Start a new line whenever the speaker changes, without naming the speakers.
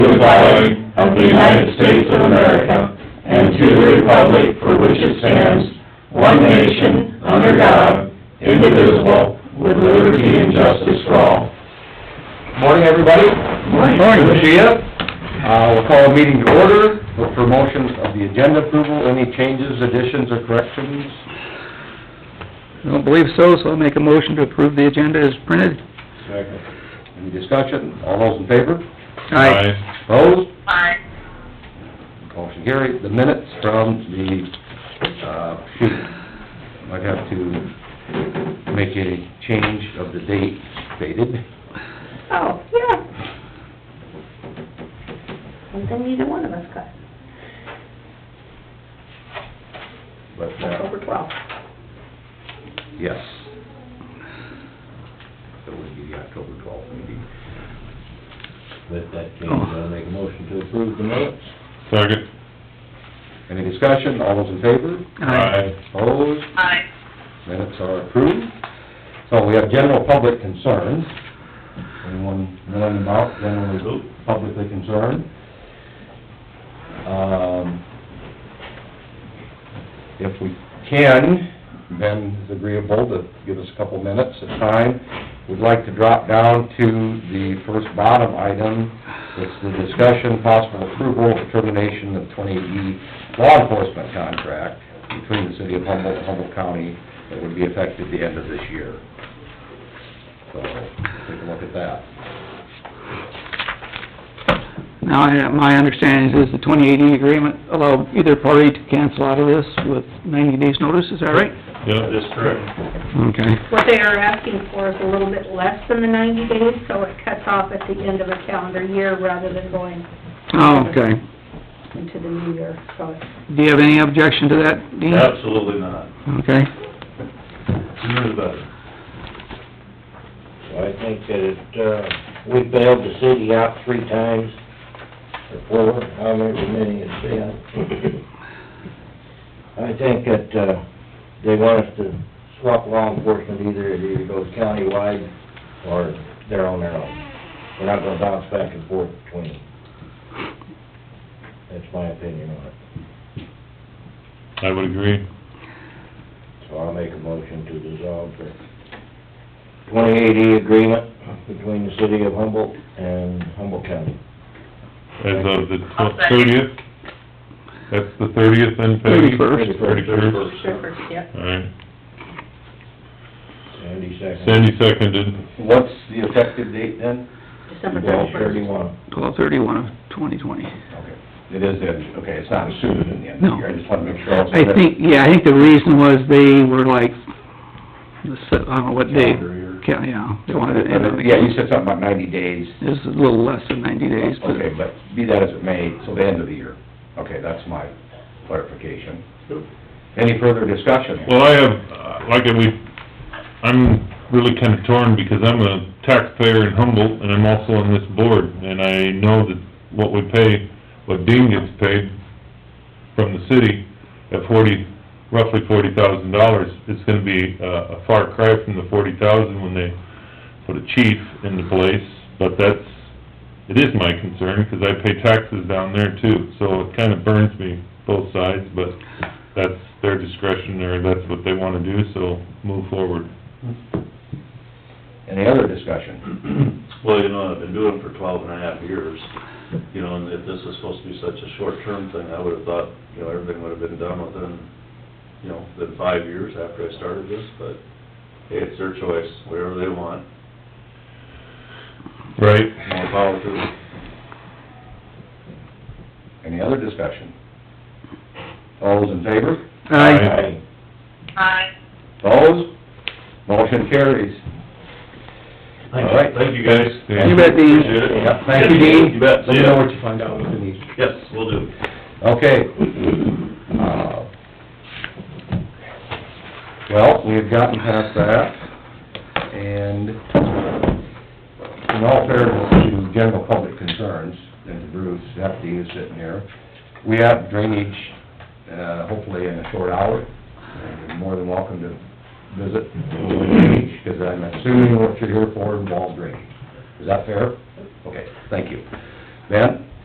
flag of the United States of America and to the republic for which it stands, one nation, under God, indivisible, with liberty and justice for all.
Morning, everybody.
Morning.
Good to see ya. Uh, we'll call a meeting to order, look for motions of the agenda approval, any changes, additions, or corrections.
I don't believe so, so I'll make a motion to approve the agenda as printed.
Second. Any discussion? All those in favor?
Aye.
Opposed? Motion carried. The minutes from the, uh, shoot, might have to make a change of the date stated.
Oh, yeah. Something neither one of us got,
But, uh,
October twelfth.
yes. So it would be the October twelfth meeting.
With that
Oh.
change, I'll make a motion to approve the minutes.
Second.
Any discussion? All those in favor? Opposed?
Aye.
Minutes are approved. So we have general public concerns. Anyone knowing about generally publicly concerned? Um, If we can, Ben is agreeable to give us a couple minutes of time. We'd like to drop down to the first bottom item. It's the discussion, possible approval, of termination of 20E law enforcement contract between the city of Humboldt and Humboldt County that would be effective the end of this year. So, take a look at that.
Now, I- my understanding is the 2080 agreement allowed either party to cancel out of this with 90 days' notice, is that right?
Yep, that's correct.
Okay.
What they are asking for is a little bit less than the ninety days, so it cuts off at the end of a calendar year rather than going
Oh, okay.
into the new year, so it's,
Do you have any objection to that, Dean?
Absolutely not.
Okay.
Sooner the better.
So I think that it, uh, we bailed the city out three times, or four, however many it's been. I think that, uh, they want us to swap law enforcement, either it either goes countywide or they're on their own. We're not gonna bounce back and forth between. That's my opinion on it.
I would agree.
So I'll make a motion to dissolve the 2080 agreement between the city of Humboldt and Humboldt County.
As of the thirtieth, that's the thirtieth then, Peggy?
31st.
Thirty-first.
sure, yeah.
All right.
Sandy second.
Sandy seconded.
What's the effective date then?
December
Twelve
thirty-first.
thirty-one.
12/31 of 2020.
Okay. It is, the- okay, it's not assumed in the end
No.
I just wanna make sure.
I think, yeah, I think the reason was they were like, the se- I don't know what day, Ca- yeah, they wanted to end on the...
Yeah, you said something about ninety days.
It was a little less than 90 days, but...
Okay, but be that as it may, so the end of the year. Okay, that's my clarification. Any further discussion?
Well, I have, uh, like, we, I'm really kinda torn because I'm a taxpayer in Humboldt and I'm also on this board. And I know that what we pay, what Dean gets paid from the city at forty, roughly forty thousand dollars, it's gonna be uh, a far cry from the forty thousand when they put a chief in the place. But that's, it is my concern, 'cause I pay taxes down there too, so it kinda burns me both sides, but that's their discretion, or that's what they wanna do, so move forward.
Any other discussion?
Well, you know, I've been doing it for twelve and a half years, you know, and if this is supposed to be such a short-term thing, I would've thought, you know, everything would've been done within, you know, within five years after I started this, but, hey, it's their choice, whatever they want,
Right.
more power to them.
Any other discussion? All those in favor?
Aye.
Aye.
Opposed? Motion carries. All right.
Thank you, guys.
You bet, Dean.
Appreciate it.
Yep, Thank you, Dean.
You bet,
Let
see
me know
ya.
what you find out with Denise.
Yes, we will do.
Okay. Uh, Well, we have gotten past that, and in all fairness to general public concerns, and to Bruce, Deputy is sitting here, we have drainage, uh, hopefully in a short hour, and you're more than welcome to visit drainage, because I'm assuming what you're here for involves drainage. Is that fair? Okay, thank you. Ben?